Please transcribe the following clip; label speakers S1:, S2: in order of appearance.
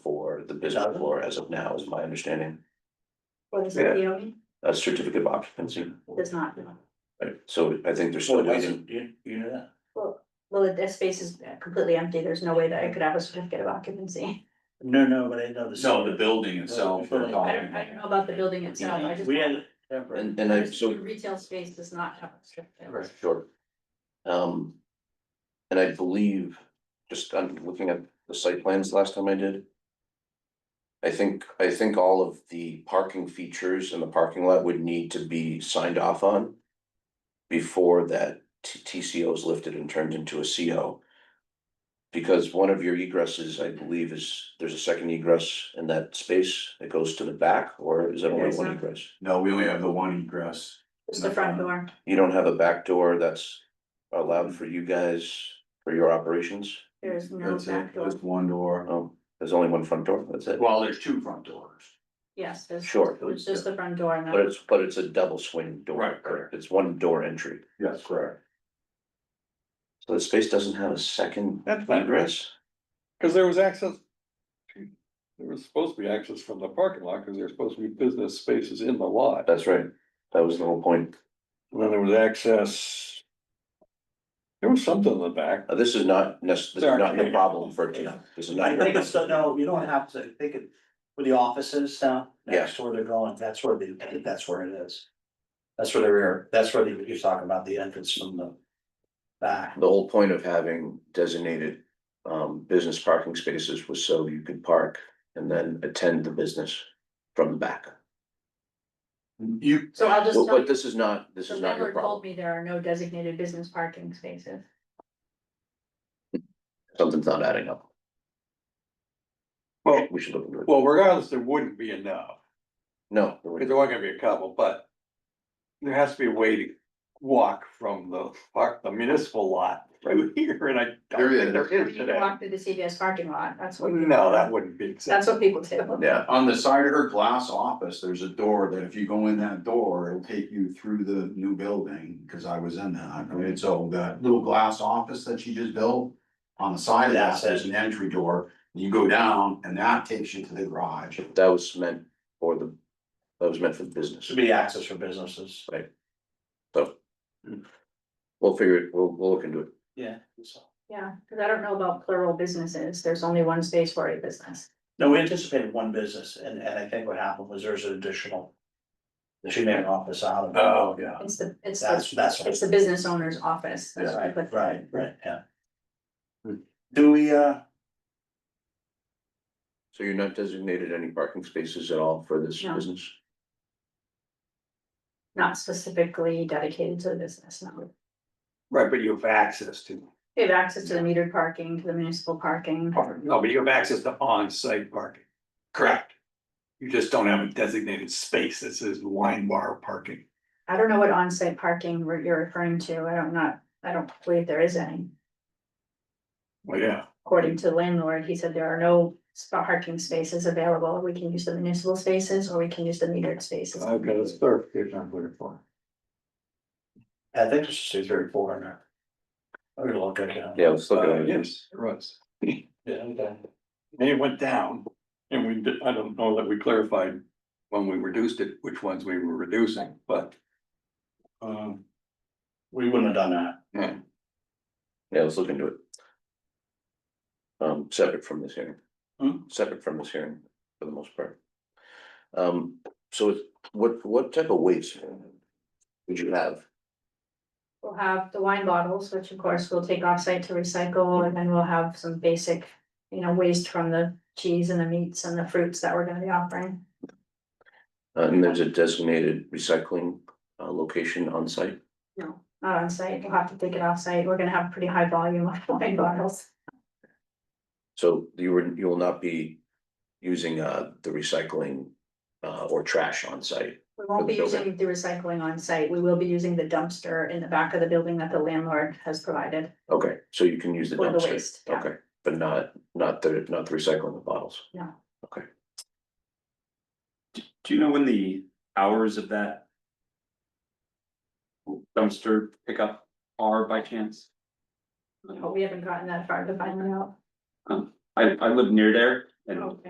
S1: for the business floor as of now, is my understanding,
S2: What is
S1: Yeah.
S2: it, POE?
S1: a certificate of occupancy.
S2: It does not.
S1: Right, so I think there's still
S3: So that's,
S1: waiting,
S3: you, you know that?
S2: Well, well, that space is completely empty. There's no way that I could have a certificate of occupancy.
S3: No, no, but I know the.
S4: No, the
S5: Oh,
S4: building itself.
S3: I
S2: I don't, I don't know about the building itself. I just.
S3: We had.
S1: and and I,
S2: Just
S1: so.
S2: the Retail space does not have a certificate.
S1: Sure. Um. And I believe, just I'm looking at the site plans last time I did. I think, I think all of the parking features in the parking lot would need to be signed off on. Before that T- TCO is lifted and turned into a CO. Because one of your egresses, I believe, is, there's a second egress in that space that goes to the back, or is that only
S2: There's
S1: one
S2: not.
S1: egress?
S4: No, we only have the one egress.
S2: Just the front door.
S1: You don't have a back door that's allowed for you guys, for your operations?
S2: There is no
S4: That's it,
S2: back door.
S4: Just one door.
S1: Oh, there's only one front door, that's it.
S4: Well, there's two front doors.
S2: Yes, there's.
S1: Sure.
S2: It's just the front door and
S1: But
S2: then
S1: it's, but it's a double swing door.
S4: Right, correct.
S1: It's one door entry.
S4: Yes, correct.
S1: So the space doesn't have a second
S5: That's fine,
S1: egress?
S5: cause there was access. There was supposed to be access from the parking lot, cause there's supposed to be business spaces in the lot,
S1: That's right. That was the whole point.
S5: and then there was access. There was something in the back,
S1: Uh, This is not, nec- this is
S5: Sorry.
S1: not the problem for tonight. This is not.
S3: I think it's, no, you don't have to, think it, with the offices now, next to where they're going, that's where they, that's where it is. That's where the rear, that's where they- you're talking about the entrance from the back.
S1: The whole point of having designated um business parking spaces was so you could park and then attend the business from the back.
S4: You,
S2: So I'll just
S1: But
S2: tell
S1: but
S2: you,
S1: this is not, this
S2: the
S1: is not your
S2: landlord told
S1: problem.
S2: me there are no designated business parking spaces.
S1: Something's not adding up.
S5: well,
S1: We should look into it.
S5: well, regardless, there wouldn't be enough,
S1: No,
S5: cause there weren't gonna be a couple, but. There has to be a way to walk from the park, the municipal lot to here, and I. don't
S4: There
S5: think
S4: is.
S5: There is
S2: You can
S5: today,
S2: walk through the CVS parking lot. That's what. people
S5: no,
S2: do.
S5: that wouldn't be.
S2: That's what people do.
S1: yeah,
S4: on the side of her glass office, there's a door that if you go in that door, it'll take you through the new building, cause I was in that. I mean, so that little glass office that she just built. On the side of that, there's an entry door, you go down and that takes you to the garage.
S1: that was meant for the, that was meant for the business.
S3: Should be access for businesses.
S1: We'll figure it, we'll, we'll look into it.
S3: Yeah.
S2: Yeah, cause I don't know about plural businesses. There's only one space for a business.
S3: No, we anticipated one business and, and I think what happened was there's an additional. She made an office out of it.
S4: Oh, yeah.
S2: It's the, it's the,
S3: That's, that's. what-
S2: it's the business owner's office. That's what I
S3: Right,
S2: put.
S3: right, right, yeah. Do we, uh,
S1: So you're not designated any parking spaces at all for this
S2: No.
S1: business?
S2: Not specifically dedicated to the business, no.
S5: Right, but you have access to.
S2: They have access to the metered parking, to the municipal parking.
S5: parking. No, but you have access to on-site parking. Correct. You just don't have a designated space that says wine bar parking.
S2: I don't know what on-site parking re- you're referring to. I don't not, I don't believe there is any.
S5: Well, yeah,
S2: According to the landlord, he said there are no spa- parking spaces available. We can use the municipal spaces or we can use the metered spaces.
S5: I've got a clarification I'm looking for.
S3: I think it's just two, three, four in there. I'm gonna look at that.
S1: Yeah, let's look
S5: Uh,
S1: at it.
S5: yes, it was.
S3: Yeah, okay.
S5: And it went down and we, did- I don't know that we clarified when we reduced it, which ones we were reducing, but. Um,
S3: We wouldn't have done that.
S1: Yeah, let's look into it. Um, separate from this hearing.
S5: Hmm?
S1: Separate from this hearing for the most part. Um, so it's- what, what type of weights would you have?
S2: We'll have the wine bottles, which of course we'll take offsite to recycle, and then we'll have some basic, you know, waste from the cheese and the meats and the fruits that we're gonna be offering.
S1: Uh, and there's a designated recycling uh location on site?
S2: No. Not on site, we'll have to take it off site, we're gonna have a pretty high volume of wine bottles.
S1: So you were, you will not be using uh the recycling uh or trash on site.
S2: We won't be
S1: For the building.
S2: using the recycling on site, we will be using the dumpster in the back of the building that the landlord has provided
S1: Okay, so you can use the
S2: for the
S1: dumpster,
S2: waste. yeah.
S1: okay, but not not the not the recycling of bottles.
S6: Do you know when the hours of that? Dumpster pickup are by chance?
S2: But we haven't gotten that far to find out.
S6: I I live near there and
S2: Okay.